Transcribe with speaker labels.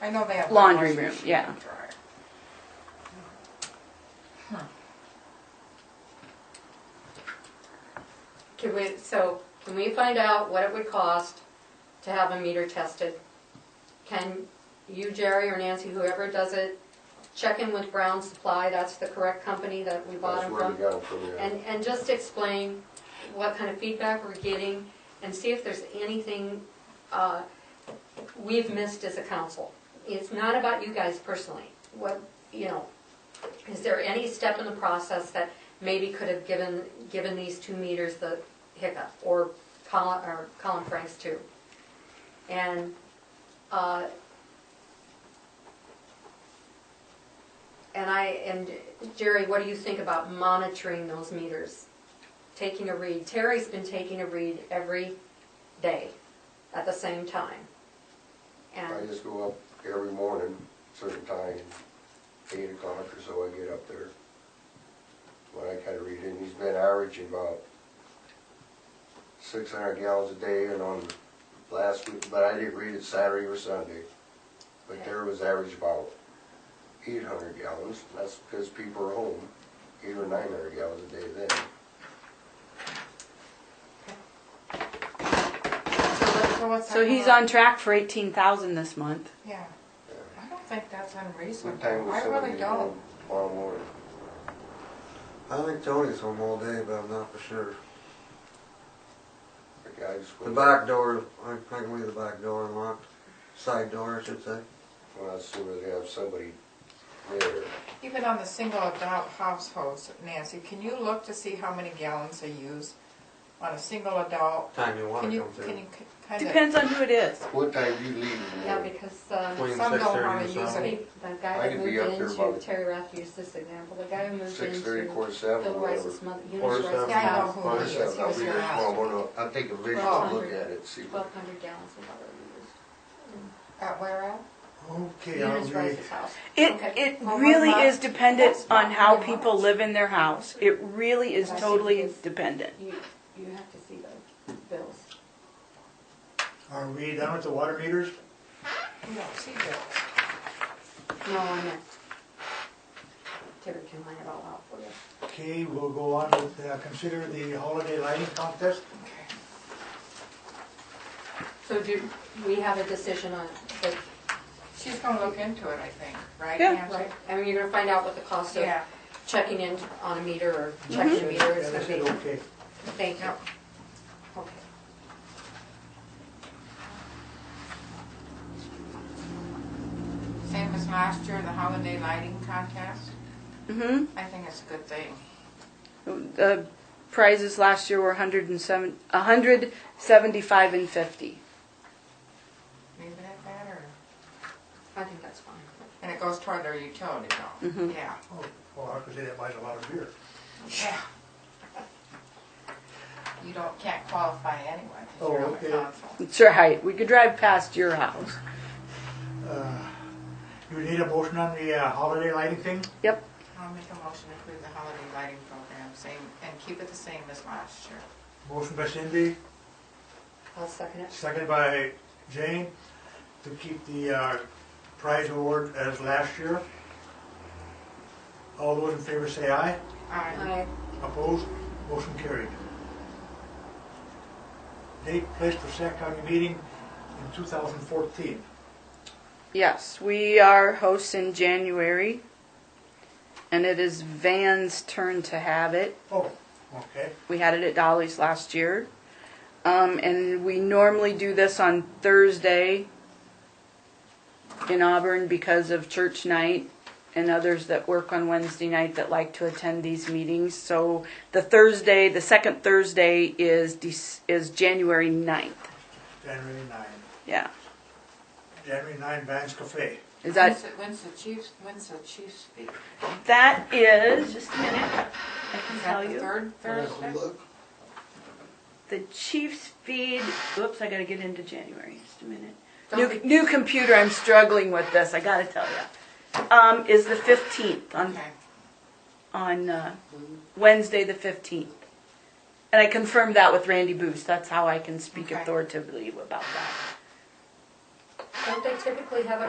Speaker 1: I know they have.
Speaker 2: Laundry
Speaker 1: washing
Speaker 2: room,
Speaker 1: machine
Speaker 2: yeah.
Speaker 1: and dryer.
Speaker 3: Can we, so, can we find out what it would cost to have a meter tested? Can you, Jerry, or Nancy, whoever does it, check in with Brown Supply, that's the correct company that we bought
Speaker 4: That's
Speaker 3: them
Speaker 4: where we
Speaker 3: from?
Speaker 4: got it from, yeah.
Speaker 3: And, and just explain what kind of feedback we're getting, and see if there's anything, uh, we've missed as a council. It's not about you guys personally, what, you know, is there any step in the process that maybe could have given, given these two meters the hiccup, or Colin, or Colin Franks too? And, uh, and I, and Jerry, what do you think about monitoring those meters? Taking a read, Terry's been taking a read every day at the same time.
Speaker 4: I
Speaker 3: And,
Speaker 4: just go up every morning, certain time, eight o'clock or so, I get up there. When I kinda read it, and he's been averaging about six hundred gallons a day, and on last week, but I didn't read it Saturday or Sunday. But there was average about eight hundred gallons, that's because people are home, eight or nine hundred gallons a day then.
Speaker 1: So what's that
Speaker 2: So he's
Speaker 1: for?
Speaker 2: on track for eighteen thousand this month.
Speaker 1: Yeah. I don't think that's
Speaker 4: What time
Speaker 1: unreasonable.
Speaker 4: was
Speaker 1: I
Speaker 4: somebody
Speaker 1: really don't.
Speaker 4: home uh, tomorrow morning?
Speaker 5: I think Tony's home all day, but I'm not for sure.
Speaker 4: The guy just
Speaker 5: The
Speaker 4: went.
Speaker 5: back door, I think we the back door unlocked, side door, I should say.
Speaker 4: Well, as soon as they have somebody there,
Speaker 1: Even on the single adult households, Nancy, can you look to see how many gallons they use on a single adult?
Speaker 5: Time you
Speaker 1: Can
Speaker 5: wanna
Speaker 1: you,
Speaker 5: come
Speaker 1: can
Speaker 5: through.
Speaker 1: you kind of?
Speaker 2: Depends on who it is.
Speaker 4: what time you leave in the
Speaker 3: yeah,
Speaker 4: morning?
Speaker 3: because, um,
Speaker 5: Between
Speaker 1: Some
Speaker 5: six
Speaker 1: don't
Speaker 5: thirty
Speaker 1: wanna
Speaker 5: and
Speaker 1: use
Speaker 3: I
Speaker 5: seven.
Speaker 3: mean, The guy
Speaker 4: I
Speaker 3: that
Speaker 4: could
Speaker 3: moved
Speaker 4: be up there
Speaker 3: into,
Speaker 4: about-
Speaker 3: Terry Rath used this example, the guy who moved
Speaker 4: Six thirty,
Speaker 3: into
Speaker 4: quarter seven,
Speaker 3: Bill
Speaker 4: or whatever.
Speaker 3: Rice's mother,
Speaker 5: Or
Speaker 3: Eunice Rice's
Speaker 5: seven.
Speaker 1: Yeah, I know
Speaker 3: house,
Speaker 1: who
Speaker 4: Quarter
Speaker 1: he is.
Speaker 4: seven,
Speaker 1: He
Speaker 4: I'll
Speaker 1: was
Speaker 4: be
Speaker 1: here
Speaker 4: there tomorrow
Speaker 1: last.
Speaker 4: morning, I'll take a visual
Speaker 1: Well-
Speaker 4: look at it, see.
Speaker 3: twelve hundred gallons of water.
Speaker 1: At where at?
Speaker 5: Okay, I'll
Speaker 3: Eunice
Speaker 5: be,
Speaker 3: Rice's house.
Speaker 2: It,
Speaker 3: Okay.
Speaker 2: it
Speaker 1: Well, what
Speaker 2: really
Speaker 1: about-
Speaker 2: is dependent
Speaker 1: That's not
Speaker 2: on how
Speaker 1: very
Speaker 2: people
Speaker 1: much.
Speaker 2: live in their house. It really is
Speaker 3: I see
Speaker 2: totally
Speaker 3: this.
Speaker 2: dependent.
Speaker 3: You, you have to see those bills.
Speaker 6: Are we done with the water meters?
Speaker 1: We don't see those.
Speaker 3: No, I meant, Terry can line it all out for you.
Speaker 6: Okay, we'll go on with, uh, consider the holiday lighting contest.
Speaker 3: So do, we have a decision on, it,
Speaker 1: She's gonna look into it, I think, right?
Speaker 2: Yeah.
Speaker 3: but,
Speaker 1: Nancy?
Speaker 3: right, I mean, you're gonna find out what the cost of
Speaker 1: Yeah,
Speaker 3: checking in on a meter or checking a meter is
Speaker 6: Mm-hmm. Yeah,
Speaker 3: gonna
Speaker 6: they said
Speaker 3: be.
Speaker 6: okay.
Speaker 3: Thank you.
Speaker 1: Yep.
Speaker 3: Okay.
Speaker 1: same as last year, the holiday lighting contest.
Speaker 2: hmm
Speaker 1: I think it's a good thing.
Speaker 2: The prizes last year were 107, 175 and 50.
Speaker 1: Leave it at that, or,
Speaker 3: I think that's fine.
Speaker 1: and it goes toward their utility bill.
Speaker 2: Mhm.
Speaker 1: Yeah.
Speaker 6: Oh, well, I could say that buys a lot of beer.
Speaker 1: Yeah. You don't, can't qualify anyway, 'cause
Speaker 6: Oh,
Speaker 1: you're on the
Speaker 6: okay.
Speaker 1: council.
Speaker 2: That's right. We could drive past your house.
Speaker 6: Uh, You need a motion on the uh, holiday lighting thing?
Speaker 2: Yep.
Speaker 1: I'll make a motion to approve the holiday lighting program, same, and keep it the same as last year.
Speaker 6: Motion by Cindy,
Speaker 3: I'll second it.
Speaker 6: second by Jane, to keep the uh, prize award as last year. All those in favor say aye.
Speaker 1: Aye.
Speaker 3: Aye.
Speaker 6: Opposed? Motion carried. Date, place for Sac County meeting in 2014.
Speaker 2: Yes, we are hosts in January. And it is Van's turn to have it.
Speaker 6: Oh, okay.
Speaker 2: We had it at Dolly's last year. Um, and we normally do this on Thursday in Auburn because of church night and others that work on Wednesday night that like to attend these meetings. So the Thursday, the second Thursday is Dec- is January 9th.
Speaker 6: January 9.
Speaker 2: Yeah.
Speaker 6: January 9, Vans Cafe.
Speaker 2: Is that
Speaker 1: When's the- When's the chiefs, when's the chiefs speak?
Speaker 2: that is just a minute. I can
Speaker 1: Is
Speaker 2: tell
Speaker 1: that the
Speaker 2: you.
Speaker 1: third Thursday?
Speaker 2: The Chiefs feed. Oops, I got to get into January. Just a minute.
Speaker 1: Don't
Speaker 2: New, new computer. I'm struggling with this. I got to tell you. Um, is the 15th on
Speaker 1: Okay.
Speaker 2: on uh, Wednesday the 15th, and I confirmed that with Randy Boost. That's how I can speak
Speaker 1: Okay.
Speaker 2: authoritatively about that.
Speaker 3: Don't they typically have it